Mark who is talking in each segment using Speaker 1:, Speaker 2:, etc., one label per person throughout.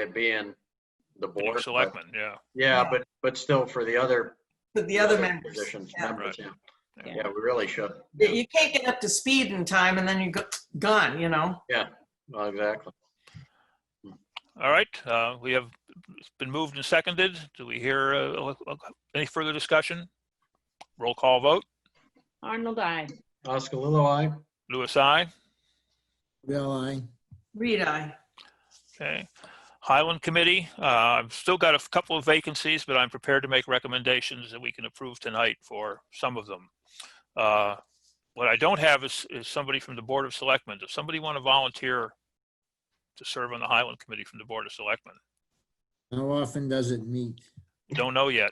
Speaker 1: it being the board. uh,
Speaker 2: Board
Speaker 1: but-
Speaker 2: of Selectmen, yeah.
Speaker 1: Yeah, but, but still for the other.
Speaker 3: But the other members.
Speaker 1: Positions,
Speaker 3: yeah.
Speaker 1: members, yeah.
Speaker 2: Yeah.
Speaker 1: Yeah, we really should.
Speaker 3: You you can't get up to speed in time and then you go, gone, you know?
Speaker 1: Well, Exactly.
Speaker 2: All right, uh, we have, it's been moved and seconded. Do we hear uh, any further discussion? Roll call vote.
Speaker 4: Arnold, I.
Speaker 1: Oscar Lilo, aye?
Speaker 2: Louis, I.
Speaker 5: Bill, aye.
Speaker 3: Reed, I.
Speaker 2: Okay. Highland Committee, uh, I've still got a couple of vacancies, but I'm prepared to make recommendations that we can approve tonight for some of them. Uh, What I don't have is, is somebody from the Board of Selectmen. Does somebody want to volunteer to serve on the Highland Committee from the Board of Selectmen?
Speaker 5: How often does it meet?
Speaker 2: Don't know yet.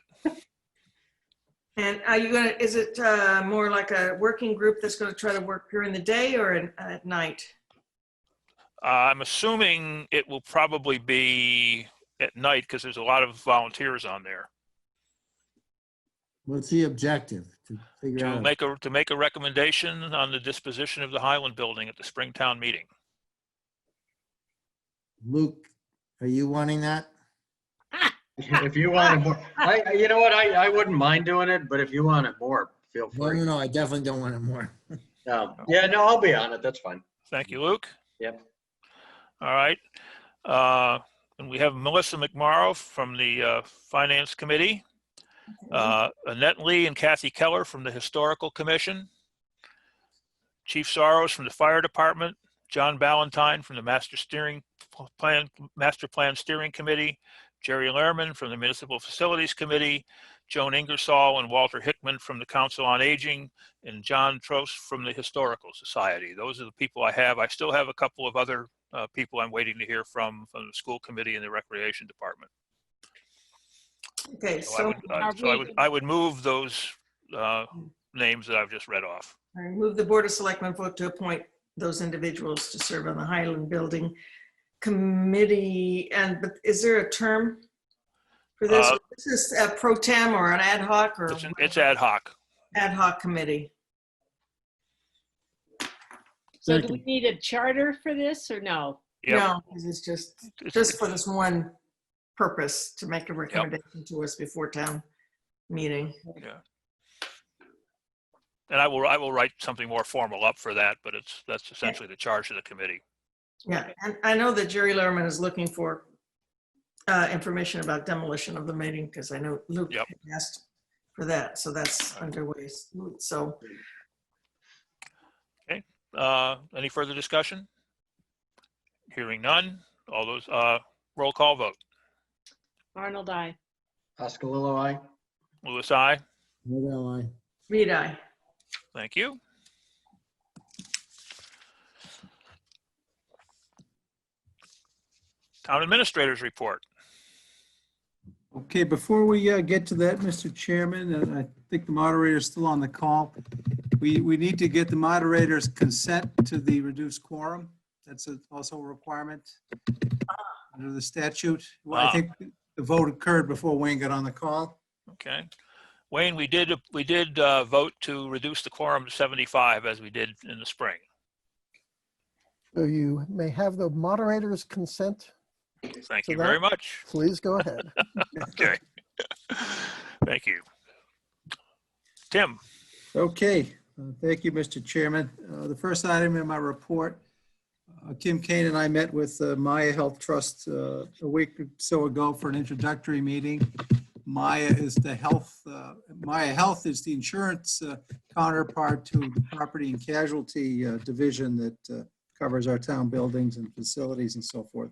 Speaker 3: And are you gonna, is it uh, more like a working group that's gonna try to work during the day or in- at night?
Speaker 2: Uh, I'm assuming it will probably be at night because there's a lot of volunteers on there.
Speaker 5: What's the objective to figure
Speaker 2: To
Speaker 5: out?
Speaker 2: make a, to make a recommendation on the disposition of the Highland Building at the Springtown meeting.
Speaker 5: Luke, are you wanting that?
Speaker 1: If you want it more, I, I- you know what, I, I wouldn't mind doing it, but if you want it more, feel
Speaker 5: No,
Speaker 1: free.
Speaker 3: Mm.
Speaker 5: no, no, I definitely don't want it more.
Speaker 1: Um, Yeah, no, I'll be on it, that's fine.
Speaker 2: Thank you, Luke.
Speaker 1: Yep.
Speaker 2: All right. Uh, And we have Melissa McMorrow from the uh, Finance Committee, uh, Annette Lee and Kathy Keller from the Historical Commission, Chief Soros from the Fire Department, John Ballantyne from the Master Steering P- Plan, Master Plan Steering Committee, Jerry Lerman from the Municipal Facilities Committee, Joan Ingersoll and Walter Hickman from the Council on Aging, and John Trost from the Historical Society. Those are the people I have. I still have a couple of other uh, people I'm waiting to hear from, from the school committee and the recreation department.
Speaker 3: Okay,
Speaker 2: So I
Speaker 3: so
Speaker 2: would, uh, so I would, I would move those uh, names that I've just read off.
Speaker 3: I move the Board of Selectmen vote to appoint those individuals to serve on the Highland Building Committee. And but is there a term for this?
Speaker 2: Uh,
Speaker 3: This is a pro tem or an ad hoc or
Speaker 2: It's an- it's ad hoc.
Speaker 3: ad hoc committee?
Speaker 4: So do we need a charter for this or no?
Speaker 2: Yeah,
Speaker 3: No, this is just, just for this one purpose, to make a recommendation to us before town meeting.
Speaker 2: And I will, I will write something more formal up for that, but it's, that's essentially the charge of the committee.
Speaker 3: Yeah, and I know that Jerry Lerman is looking for uh, information about demolition of the meeting, because I know Luke
Speaker 2: Yep.
Speaker 3: had asked for that, so that's underway. So,
Speaker 2: Uh, Any further discussion? Hearing none. All those, uh, roll call vote.
Speaker 4: Arnold, I.
Speaker 1: Oscar Lilo, aye?
Speaker 2: Louis, I.
Speaker 5: Bill, aye.
Speaker 3: read I.
Speaker 2: Thank you. Town Administrators Report.
Speaker 6: Okay, before we uh, get to that, Mr. Chairman, and I think the moderator is still on the call, we, we need to get the moderator's consent to the reduced quorum. That's a- also a requirement under the statute. Well, I
Speaker 2: Ah.
Speaker 6: think the vote occurred before Wayne got on the call.
Speaker 2: Okay. Wayne, we did, we did uh, vote to reduce the quorum to 75 as we did in the spring.
Speaker 7: So you may have the moderator's consent.
Speaker 2: Thank
Speaker 7: So
Speaker 2: you very
Speaker 7: that-
Speaker 2: much.
Speaker 7: Please go ahead.
Speaker 2: Okay. Thank you. Tim,
Speaker 6: Okay, uh, thank you, Mr. Chairman. Uh, The first item in my report, uh, Kim Kane and I met with uh, Maya Health Trust uh, a week or so ago for an introductory meeting. Maya is the health, uh, Maya Health is the insurance uh, counterpart to the property and casualty uh, division that uh, covers our town buildings and facilities and so forth.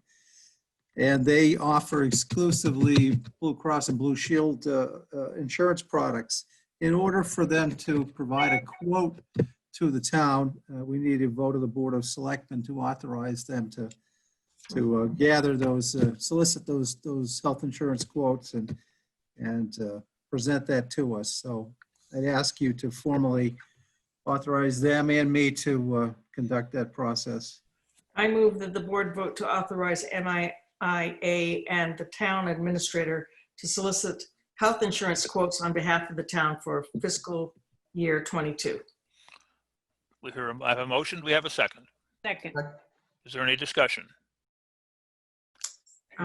Speaker 6: And they offer exclusively Blue Cross and Blue Shield uh, uh, insurance products in order for them to provide a quote to the town, uh, we need a vote of the Board of Selectmen to authorize them to, to uh, gather those, uh, solicit those, those health insurance quotes and, and uh, present that to us. So I'd ask you to formally authorize them and me to uh, conduct that process.
Speaker 3: I move that the board vote to authorize MIA and the town administrator to solicit health insurance quotes on behalf of the town for fiscal year 22.
Speaker 2: we hear, I have a motion, Do we have a second.
Speaker 4: Second.
Speaker 2: Is there any discussion?